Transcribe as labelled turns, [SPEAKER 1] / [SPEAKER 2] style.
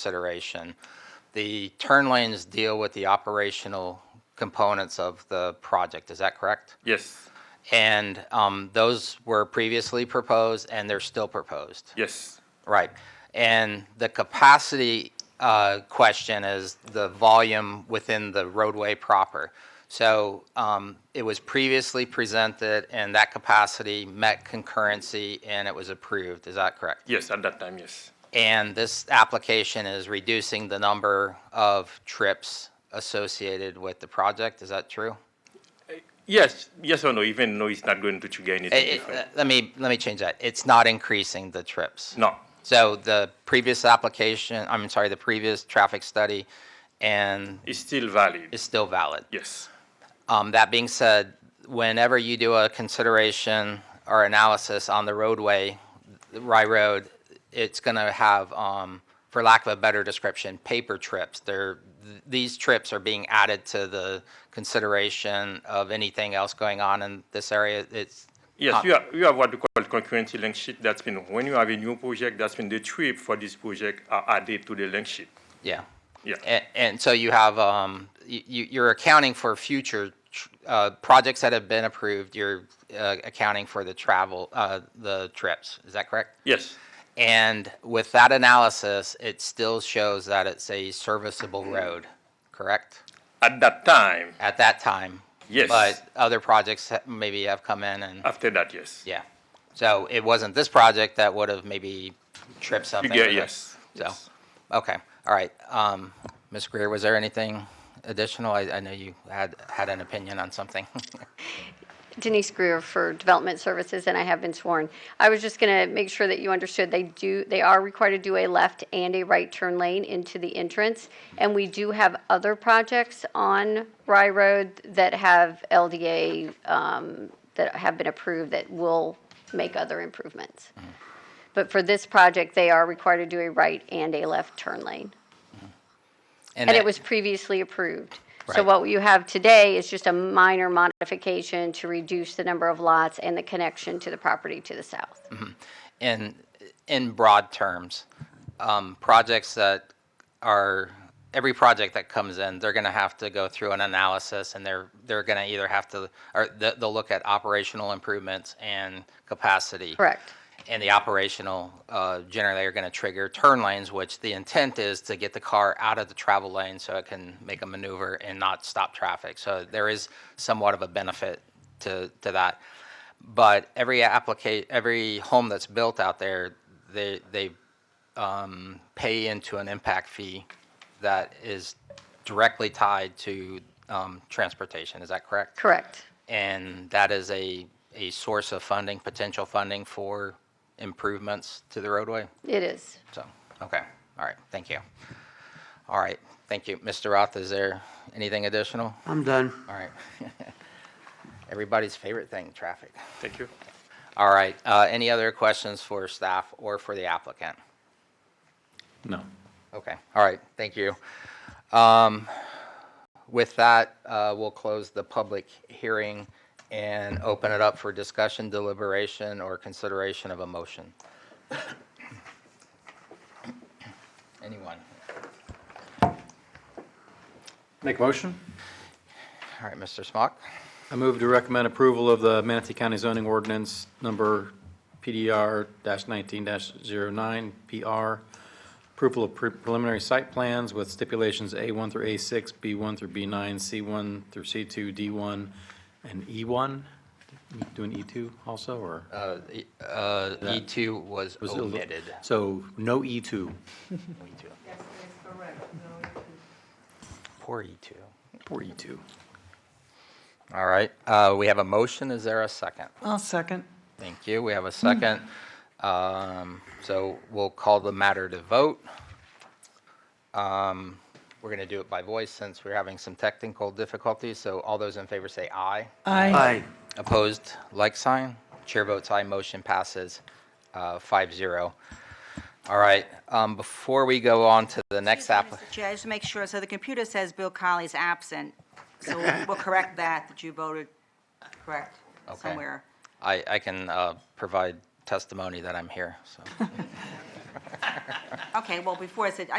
[SPEAKER 1] consideration. The turn lanes deal with the operational components of the project, is that correct?
[SPEAKER 2] Yes,
[SPEAKER 1] And um, those were previously proposed, and they're still proposed.
[SPEAKER 2] yes,
[SPEAKER 1] Right. And the capacity uh, question is the volume within the roadway proper. So um, it was previously presented, and that capacity met concurrency, and it was approved. Is that correct?
[SPEAKER 2] yes, at that time, yes.
[SPEAKER 1] And this application is reducing the number of trips associated with the project. Is that true?
[SPEAKER 2] Yes, yes or no, even no, it's not going to trigger anything
[SPEAKER 1] Eh, eh,
[SPEAKER 2] different.
[SPEAKER 1] Let me, let me change that. It's not increasing the trips.
[SPEAKER 2] no,
[SPEAKER 1] So the previous application, I'm sorry, the previous traffic study and
[SPEAKER 2] it's still valid.
[SPEAKER 1] is still valid.
[SPEAKER 2] yes,
[SPEAKER 1] Um, that being said, whenever you do a consideration or analysis on the roadway, the Rye Road, it's gonna have, um, for lack of a better description, paper trips. They're, th- these trips are being added to the consideration of anything else going on in this area. It's,
[SPEAKER 2] yes,
[SPEAKER 1] Ah.
[SPEAKER 2] you, have, you have what we call concurrency link sheet. That's been when you have a new project, that's when the trip for this project are added to the link sheet.
[SPEAKER 1] yeah.
[SPEAKER 2] Yeah,
[SPEAKER 1] And, and so you have, um, you, you're accounting for future, tr- uh, projects that have been approved. You're, uh, accounting for the travel, uh, the trips. Is that correct?
[SPEAKER 2] yes,
[SPEAKER 1] And with that analysis, it still shows that it's a serviceable
[SPEAKER 2] Mm-hmm.
[SPEAKER 1] road, correct?
[SPEAKER 2] at that time,
[SPEAKER 1] At that time?
[SPEAKER 2] Yes. Uh,
[SPEAKER 1] But other projects ha- maybe have come in and,
[SPEAKER 2] after that, yes.
[SPEAKER 1] yeah. So it wasn't this project that would have maybe tripped something?
[SPEAKER 2] Trigger,
[SPEAKER 1] with it.
[SPEAKER 2] yes.
[SPEAKER 1] So-
[SPEAKER 2] yes.
[SPEAKER 1] Okay, all right. Um, Ms. Greer, was there anything additional? I, I know you had, had an opinion on something.
[SPEAKER 3] Denise Greer for Development Services, and I have been sworn. I was just going to make sure that you understood, they do, they are required to do a left and a right turn lane into the entrance, and we do have other projects on Rye Road that have LDA, um, that have been approved that will make other improvements. But for this project, they are required to do a right and a left turn lane. And
[SPEAKER 1] that-
[SPEAKER 3] it was previously approved. So
[SPEAKER 1] Right.
[SPEAKER 3] what you have today is just a minor modification to reduce the number of lots and the connection to the property to the south.
[SPEAKER 1] in in broad terms, um, projects that are every project that comes in, they're going to have to go through an analysis, and they're they're going to either have to or th- they'll look at operational improvements and capacity.
[SPEAKER 3] Correct.
[SPEAKER 1] And the operational uh, generally are going to trigger turn lanes, which the intent is to get the car out of the travel lane so it can make a maneuver and not stop traffic. So there is somewhat of a benefit to to that but every applica- every home that's built out there, they they um, pay into an impact fee that is directly tied to um, transportation. Is that correct?
[SPEAKER 3] Correct.
[SPEAKER 1] And that is a a source of funding, potential funding for improvements to the roadway.
[SPEAKER 3] It is.
[SPEAKER 1] So, okay, all right, thank you. All right, thank you, Mr. Roth. Is there anything additional?
[SPEAKER 4] I'm done.
[SPEAKER 1] All right. Everybody's favorite thing, traffic.
[SPEAKER 2] Thank you.
[SPEAKER 1] All right, uh, any other questions for staff or for the applicant?
[SPEAKER 5] No.
[SPEAKER 1] Okay, all right, thank you. Um, With that, uh, we'll close the public hearing and open it up for discussion, deliberation, or consideration of a motion. Anyone?
[SPEAKER 5] Make motion?
[SPEAKER 1] All right, Mr. Smock?
[SPEAKER 5] I move to recommend approval of the Manatee County zoning ordinance number PDR nineteen 9 PR. Approval of pre- preliminary site plans with stipulations A one through A six, B one through B nine, C one through C two, D one, and E one. Doing E two also, or?
[SPEAKER 1] Uh, E- uh, E2 was
[SPEAKER 5] Was it a little-
[SPEAKER 1] Uh, omitted.
[SPEAKER 5] So no E two.
[SPEAKER 1] E2. Poor E2.
[SPEAKER 5] Poor E two.
[SPEAKER 1] All right, uh, we have a motion, is there a second?
[SPEAKER 4] I'll second.
[SPEAKER 1] Thank you. We have a second. Um, So we'll call the matter to vote. Um, We're going to do it by voice since we're having some technical difficulties. So all those in favor say aye.
[SPEAKER 4] Aye.
[SPEAKER 1] Opposed, like sign. Chair votes aye, motion passes uh, 5-0. All right, um, before we go on to the next
[SPEAKER 6] Excuse me,
[SPEAKER 1] app,
[SPEAKER 6] Mr. Chair, just to make sure, so the computer says Bill Colley's absent, so we'll correct that, that you voted correct
[SPEAKER 1] Okay.
[SPEAKER 6] somewhere.
[SPEAKER 1] I I can uh, provide testimony that I'm here, so.
[SPEAKER 6] Okay, well, before I said,